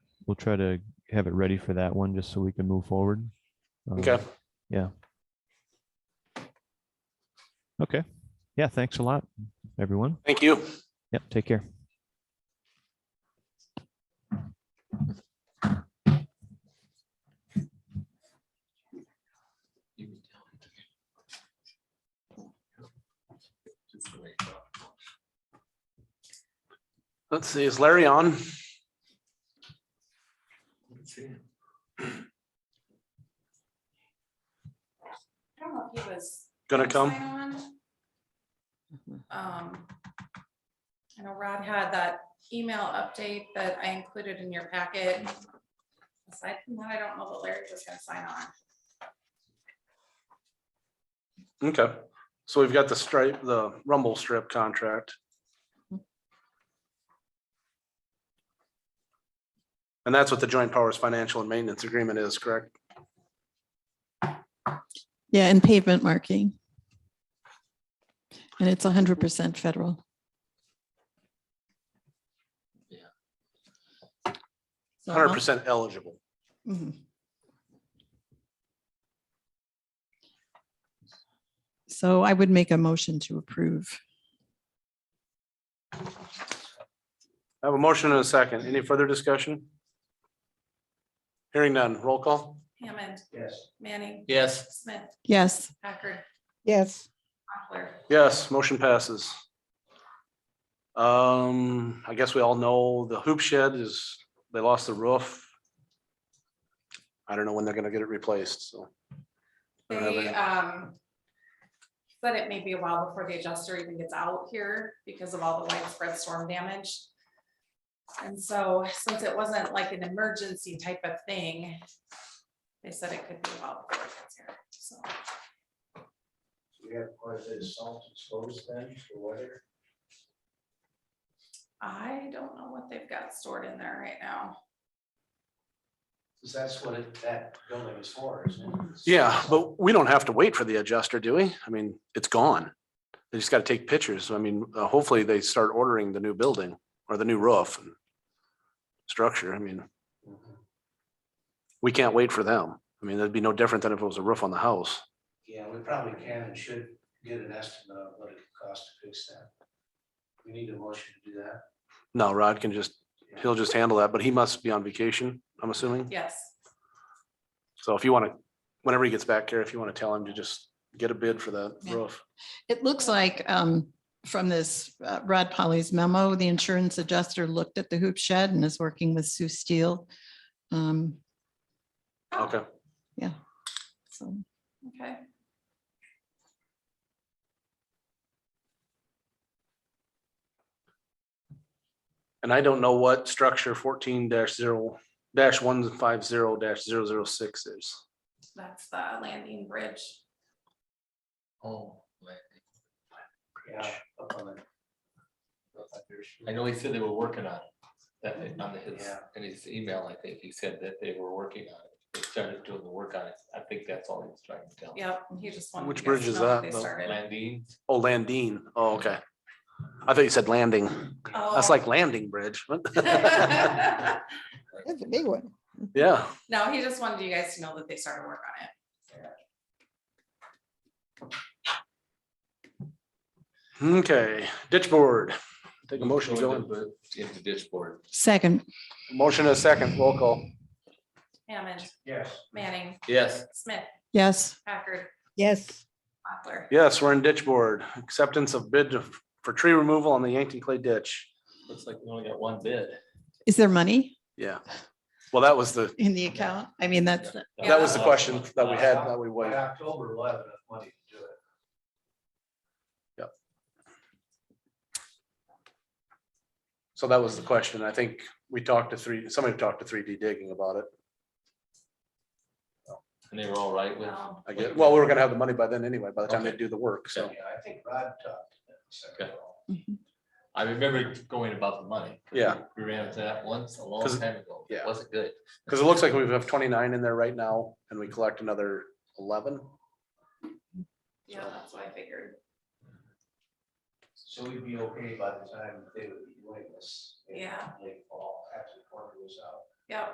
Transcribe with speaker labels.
Speaker 1: we'll try to have it ready for that one, just so we can move forward. Um,
Speaker 2: Okay.
Speaker 1: Okay. Yeah, thanks a lot, everyone.
Speaker 2: Thank you.
Speaker 1: Yep, take care.
Speaker 2: Let's see, is Larry on?
Speaker 3: I don't know if he was.
Speaker 2: Gonna come?
Speaker 3: sign on. Um, I know Rod had that email update that I included in your packet. Aside from that, I don't know that Larry was gonna sign on.
Speaker 2: Okay, so we've got the stripe, the rumble strip contract. And that's what the joint powers financial and maintenance agreement is, correct?
Speaker 4: Yeah, and pavement marking. And it's hundred percent federal. Yeah.
Speaker 2: Hundred percent eligible.
Speaker 4: uh-huh, mm-hmm. So I would make a motion to approve.
Speaker 2: I have a motion and a second. Any further discussion? Hearing none. Roll call?
Speaker 3: Hammond,
Speaker 2: Yes.
Speaker 3: Manning,
Speaker 5: Yes.
Speaker 3: Smith,
Speaker 4: Yes,
Speaker 3: Packard,
Speaker 6: yes,
Speaker 3: Mochler.
Speaker 2: Yes, motion passes. Um, I guess we all know the hoop shed is, they lost the roof. I don't know when they're gonna get it replaced, so. I don't have
Speaker 3: They,
Speaker 2: any-
Speaker 3: um, said it may be a while before the adjuster even gets out here because of all the widespread storm damage. And so since it wasn't like an emergency type of thing, they said it could be a while before it gets here, so.
Speaker 7: We have quite a bit of salt exposed then for weather.
Speaker 3: I don't know what they've got stored in there right now.
Speaker 7: Because that's what it- that building is for, isn't it?
Speaker 2: Yeah, but we don't have to wait for the adjuster, do we? I mean, it's gone. They just gotta take pictures. I mean, uh, hopefully they start ordering the new building or the new roof. and Structure, I mean,
Speaker 7: Mm-hmm.
Speaker 2: we can't wait for them. I mean, that'd be no different than if it was a roof on the house.
Speaker 7: Yeah, we probably can and should get an estimate of what it could cost to fix that. We need a motion to do that.
Speaker 2: No, Rod can just, he'll just handle that, but he must be on vacation, I'm assuming.
Speaker 3: Yes,
Speaker 2: So if you wanna, whenever he gets back here, if you wanna tell him to just get a bid for that
Speaker 4: Yeah.
Speaker 2: roof.
Speaker 4: it looks like um, from this uh, Rod Polly's memo, the insurance adjuster looked at the hoop shed and is working with Sue Steele. Um,
Speaker 2: Okay,
Speaker 4: So
Speaker 3: Oh, okay.
Speaker 2: and I don't know what structure fourteen dash zero dash one five zero dash zero zero six is.
Speaker 3: That's the landing bridge.
Speaker 5: Oh, right.
Speaker 7: Yeah, up on the-
Speaker 5: I know he said they wwere working on it. That they- on his,
Speaker 7: Yeah.
Speaker 5: in his email, I think he said that they were working on it. They started doing the work on it. I think that's all he was trying to tell. me.
Speaker 3: Yep, he just wanted.
Speaker 2: Which
Speaker 3: you guys
Speaker 2: bridge
Speaker 3: to
Speaker 2: is
Speaker 3: know
Speaker 2: that,
Speaker 3: They
Speaker 2: though?
Speaker 3: started.
Speaker 5: Landine,
Speaker 2: Oh, Landine. Oh, okay. I thought you said landing. That's
Speaker 3: Oh.
Speaker 2: like landing bridge.
Speaker 6: that's a big one.
Speaker 2: Yeah,
Speaker 3: No, he just wanted you guys to know that they started work on it.
Speaker 2: okay. Ditch board. Take a motion
Speaker 5: Go
Speaker 2: going.
Speaker 5: into the- Into dishboard.
Speaker 4: second,
Speaker 2: Motion and a second, roll call.
Speaker 3: Hammond,
Speaker 7: Yes.
Speaker 3: Manning,
Speaker 5: Yes.
Speaker 3: Smith,
Speaker 4: yes.
Speaker 3: Packard,
Speaker 6: Yes,
Speaker 3: Mochler.
Speaker 2: Yes, we're in ditch board. Acceptance of bid for tree removal on the Yankton Clay Ditch.
Speaker 5: Looks like we only got one bid.
Speaker 4: Is there money
Speaker 2: Yeah. Well, that was the,
Speaker 4: in the account? I mean, that's,
Speaker 2: that was the question that we had, that we
Speaker 7: By
Speaker 2: waived.
Speaker 7: October, we'll have enough money to do it.
Speaker 2: So that was the question. I think we talked to three, somebody talked to three D digging about it.
Speaker 5: And they were all right with.
Speaker 3: Um,
Speaker 2: I guess, well, we were gonna have the money by then anyway, by the time they do the work, so.
Speaker 7: Yeah, I think Rod talked to them. so-
Speaker 5: Okay.
Speaker 4: uh, mhm.
Speaker 5: I remember going about the money. 'cause
Speaker 2: Yeah.
Speaker 5: We ran into that once a long
Speaker 2: 'Cause-
Speaker 5: time ago. It
Speaker 2: yeah.
Speaker 5: Wasn't good.
Speaker 2: Because it looks like we have twenty-nine in there right now, and we collect another eleven.
Speaker 3: Yeah, that's what I figured.
Speaker 7: So we'd be okay by the time they would be doing this. in
Speaker 3: Yeah.
Speaker 7: Late fall, after the quarter was out.